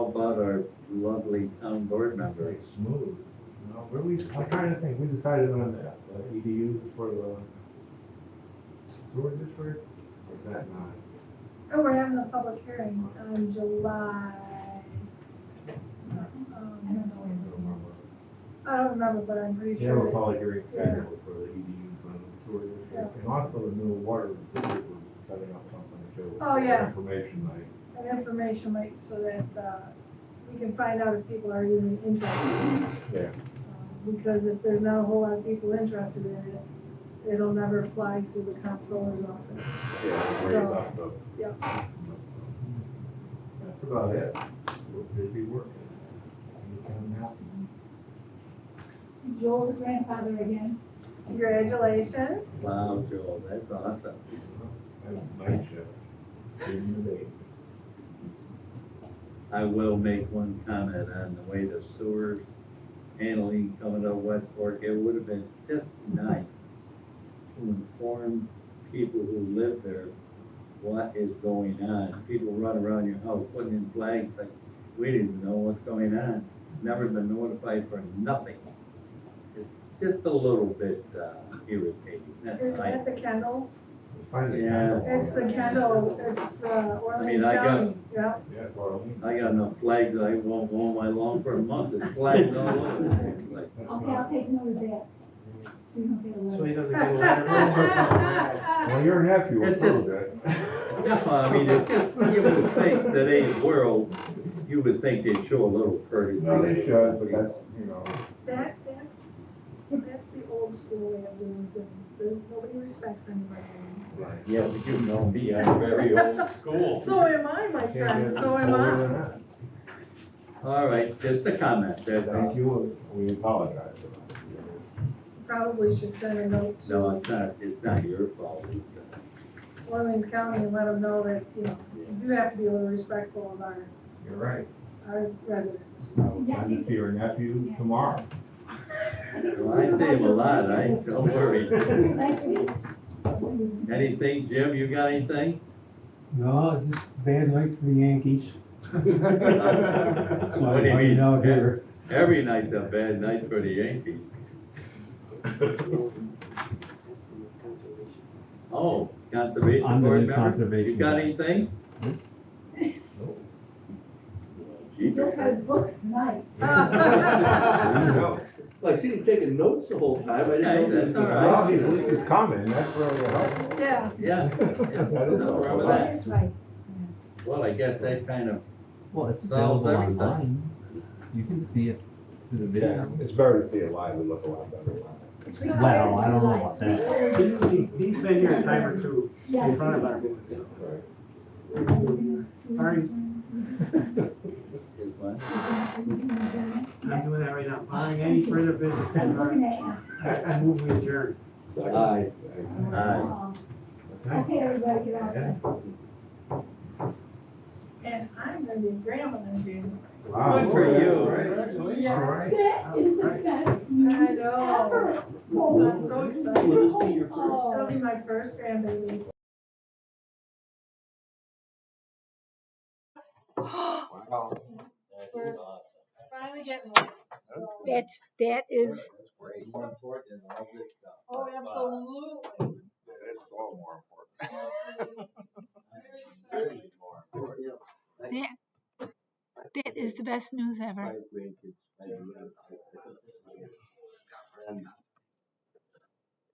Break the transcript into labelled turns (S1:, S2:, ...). S1: every town board member.
S2: Very smooth. No, where we, what kind of thing, we decided on that, the EDUs for the sewer district, or is that not?
S3: Oh, we're having a public hearing on July.
S4: I don't
S3: um,
S4: know
S2: I
S4: when.
S2: don't remember.
S3: I don't remember, but I'm pretty
S2: They have a
S3: sure.
S2: public hearing
S3: Yeah.
S2: scheduled for the EDUs on the sewer district, and also the new water district was setting up something too.
S3: Oh, yeah.
S2: Information night.
S3: that That information might, so that, uh, we can find out if people are even interested.
S2: Yeah.
S3: Um, Because if there's not a whole lot of people interested in it, it'll never fly through the comptroller's office.
S1: Yeah,
S3: raise So- yeah.
S2: That's about it. We're busy working. You can now-
S4: Joel's a grandfather again.
S3: Congratulations.
S1: Wow, Joel, that's awesome.
S2: I have a night shift. During the day.
S1: I will make one comment on the way the sewers handling coming up West Fork. It would have been just nice to inform people who live there what is going on. People run around your house putting in flags like, we didn't know what's going on. Never been notified for nothing. It's just a little bit uh, irritating, that's
S3: Is
S1: all.
S3: that the Kendall?
S2: Finally.
S1: Yeah.
S3: It's the Kendall, it's, uh, Orleans
S1: mean, I got-
S3: County, yeah.
S2: Yeah, well.
S1: I got enough flags, I won't mow my lawn for a month, it's flags all over the place, like,
S2: that's
S4: Okay,
S2: not-
S4: I'll take note of that. So you don't get a
S5: So he
S4: letter.
S5: doesn't get a letter from
S2: Well, your nephew
S1: It's
S2: approved it.
S1: No, I mean, it's just, you would think today's world, you would think they'd show a little courtesy.
S2: No, they should, but that's, you know,
S3: That, that's, that's the old school way of doing things, There- nobody respects anybody.
S2: like,
S1: Yeah, but you know me, I'm very old school.
S3: So am I, my
S2: can't get
S3: friend, so am
S2: older
S3: I.
S2: than that.
S1: All right, just a comment, that's all.
S2: Thank you, we apologize. for
S3: Probably should send a note
S1: No,
S3: to
S1: it's not, it's not your fault. It's, uh,
S3: Orleans County and let them know that, you know, you do have to be a little respectful of our,
S2: that. You're right.
S3: our residents.
S2: I will send it to your nephew tomorrow.
S1: Well, I say him a lot, I, don't worry.
S4: Last week. When
S1: Anything, Jim, you got anything?
S6: No, just bad luck for the Yankees. That's
S1: What
S6: why
S1: do you
S6: I'm
S1: mean?
S6: out here.
S1: Every night's a bad night for the Yankees. Oh, conservation
S6: I'm the
S1: board
S6: new
S1: member,
S6: conservation Hmm?
S1: you got
S6: guy.
S1: anything?
S4: he just got his books tonight.
S2: No,
S7: Well, I see him taking notes the whole time, I
S1: Okay,
S7: didn't
S1: that's
S7: know.
S1: all right.
S2: Well, he's, he's coming, that's really helpful.
S3: Yeah,
S1: Yeah.
S2: That is
S1: Nothing wrong with
S2: helpful.
S1: that.
S4: That's right.
S1: Well, I guess that kind of,
S8: Well, it's
S1: Solves
S8: available
S1: everything.
S8: online. You can see it through the
S2: Yeah,
S8: video.
S2: it's better to see it live, it look a lot better.
S8: Well, I don't know about
S5: that. He's, he's been here a time or two in front of our booth, so.
S2: Right.
S5: Sorry,
S1: is one.
S5: I'm doing that right now. Barring any further business,
S4: I was
S5: then
S4: looking at you.
S5: I I move we adjourn.
S1: Aye. Aye.
S4: Oh. Okay, everybody, get out.
S3: and I'm gonna be a grandma in June.
S2: Wow.
S1: Good for you.
S2: Congratulations. All right.
S4: That is the best news
S3: I know.
S4: ever.
S3: I'm so excited.
S7: Will this be your first?
S3: That'll be my first grandbaby.
S2: Wow.
S3: We're finally getting one. so-
S9: That's, that is,
S2: More important than all this stuff.
S3: Oh, absolutely.
S2: It's all more important.
S3: Absolutely. Very excited.
S2: Really more important.
S9: that is the best news ever.
S2: Five grandkids, I do have. And